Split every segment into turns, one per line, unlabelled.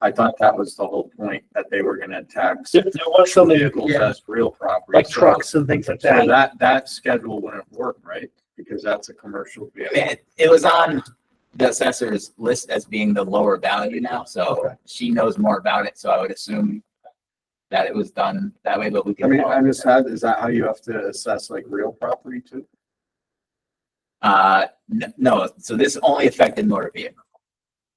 I thought that was the whole point, that they were gonna tax
There there was some
vehicles
yeah,
as real property.
like
So-
trucks and things like
So
that.
that, that schedule wouldn't work, right? Because that's a commercial vehicle.
It, it was on the assessor's list as being the lower value now, so she knows more about it, so I would assume that it was done that way, but we
I
can.
mean,
follow-
I just had, is that how you have to assess like real property too?
Uh, n- no, so this only affected motor vehicle.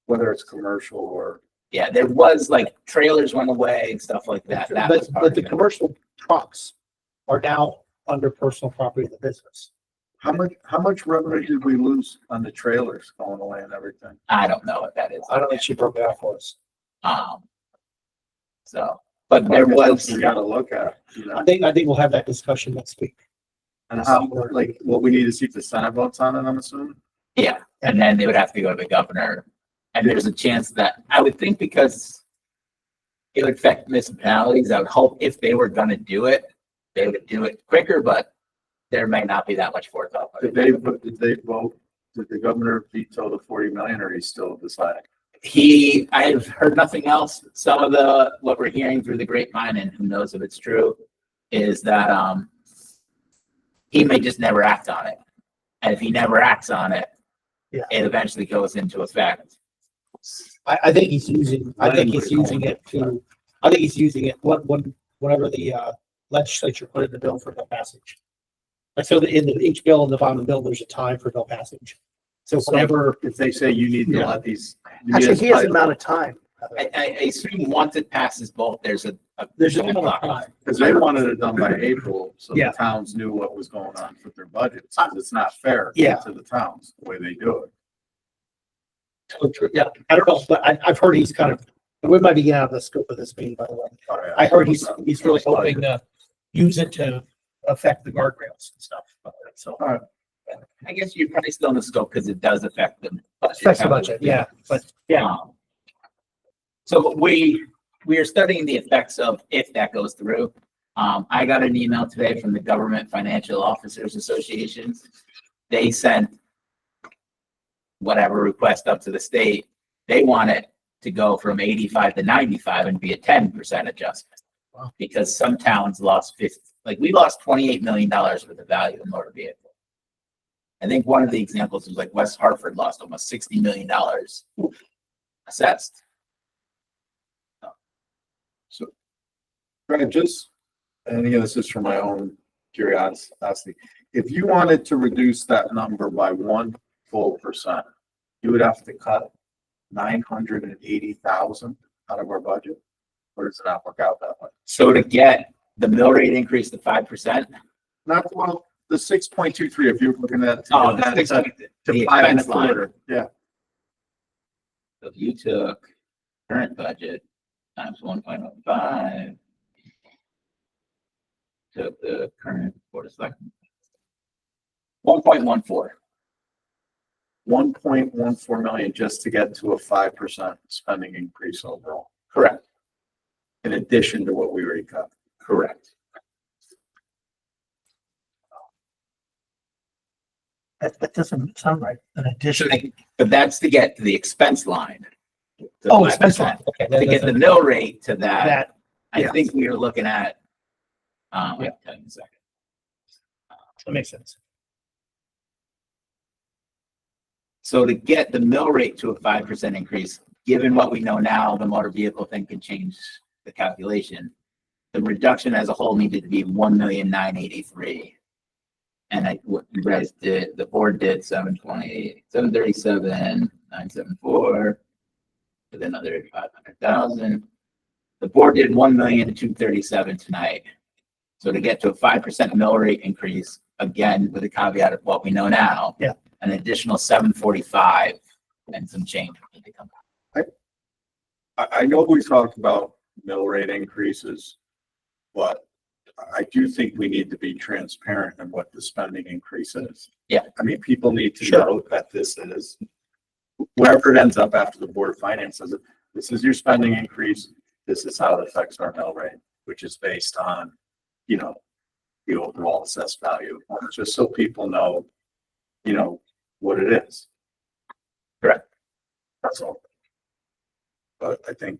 Whether it's commercial or,
Yeah, there was like trailers went away and stuff like that. That was
But,
part
but
of
the
it.
commercial trucks are now under personal property of the business.
how much, how much revenue did we lose on the trailers going away and everything?
I don't know what that is.
I don't think she broke it out for us.
Um. So, but there was,
You gotta look at, it, you know,
I think, I think we'll have that discussion next week.
and how, like, what we need to see if the Senate votes on it, I'm assuming?
yeah, and then they would have to go to the governor. And there's a chance that, I would think because it would affect municipalities, I would hope if they were gonna do it, they would do it quicker, but there may not be that much forethought.
Did they, vote- did they vote, did the governor veto the forty million or he's still deciding?
He, I have heard nothing else. Some of the, what we're hearing through the grapevine, and who knows if it's true, is that, um, he may just never act on it. And if he never acts on it,
Yeah.
it eventually goes into effect.
I, I think he's using, I think he's
Language.
using it to, I think he's using it, what, when, whenever the uh, legislature put in the bill for no passage. Like, so in the, each bill in the bottom of the bill, there's a time for no passage. So whenever.
If they say you need to
Yeah.
let these.
of time.
I, I, I assume once it passes both, there's a. a-
There's an amount of time.
Cause they wanted it done by April, so
Yeah.
the towns knew what was going on with their budgets. 'cause It's not fair.
Yeah.
To the towns, the way they do it.
So true. Yeah, I don't know, but I, I've heard he's kind of, we might be getting out of the scope of this meeting, by the way. I heard he's, he's really hoping to use it to affect the guardrails and stuff. So.
I guess you're probably still in the scope because it does affect them.
Affects the budget, yeah, but yeah.
Um, So we, we are studying the effects of if that goes through. Um, I got an email today from the Government Financial Officers Association. They sent whatever request up to the state. They want it to go from eighty-five to ninety-five and be a ten percent adjustment.
Wow.
Because some towns lost fifty, like we lost twenty-eight million dollars worth of value in motor vehicle. I think one of the examples was like West Hartford lost almost sixty million dollars assessed.
Right, just, and again, this is for my own curiosity. If you wanted to reduce that number by one full percent, you would have to cut nine hundred and eighty thousand out of our budget? Or does it not work out that way?
So to get the mill rate increase to five percent.
Not, well, the six point two three, if you're looking at.
that's
To
the
five and Oh, a
expense line.
quarter, yeah.
If you took current budget times one point oh five. Took the current, what is that? One point one four.
one point one four million just to get to a five percent spending increase overall,
Correct.
in addition to what we already cut.
Correct.
That, that doesn't sound right. An
So
addition.
they- But that's to get to the expense line. the
Oh, expense line.
5%.
Okay.
To get the
that-
mill rate to that.
That,
I
Yeah.
think we were looking at. Um, I'll tell you in a second.
that makes sense.
So to get the mill rate to a five percent increase, given what we know now, the motor vehicle thing can change the calculation. The reduction as a whole needed to be one million nine eighty-three. And I, what you guys did, the board did seven twenty, seven thirty-seven, nine seven four. With another five hundred thousand. The board did one million two thirty-seven tonight. So to get to a five percent mill rate increase, again, with a caveat of what we know now an additional seven forty-five and some change. when they come back.
I, I know we talked about mill rate increases, but I do think we need to be transparent in what the spending increase is.
Yeah.
I mean, people need to
Sure.
know that this is, wherever it ends up after the board of finance says it, this is your spending increase, this is how it affects our mill rate, which is based on, you know, the overall assessed value, just so people know, you know, what it is.
Correct.
That's all. But I think